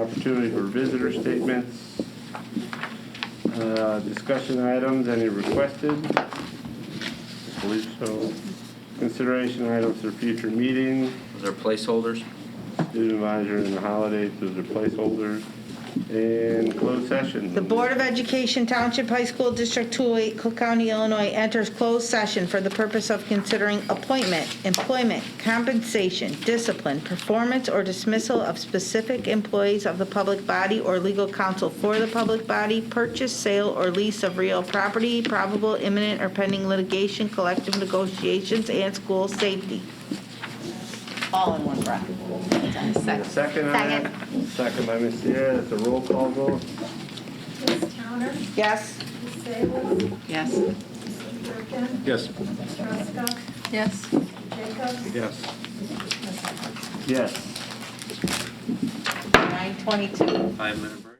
opportunity for visitor statements. Uh, Discussion items, any requested? I believe so. Consideration items for future meetings. Those are placeholders. student advisor and the holidays, those are placeholders. And closed session. The Board of Education Township High School District 208, Cook County, Illinois enters closed session for the purpose of considering appointment, employment, compensation, discipline, performance, or dismissal of specific employees of the public body or legal counsel for the public body, purchase, sale, or lease of real property, probable imminent or pending litigation, collective negotiations, and school safety. all in one breath. And a Second on that? Second by Ms. Sierra, that's a roll call vote. Ms. Towner, Yes? Ms. Sables, Yes. Mr. Durkin, Yes. Ms. Ruska, Yes. Jacobs. Yes. Yes. Nine twenty-two. Five-minute break.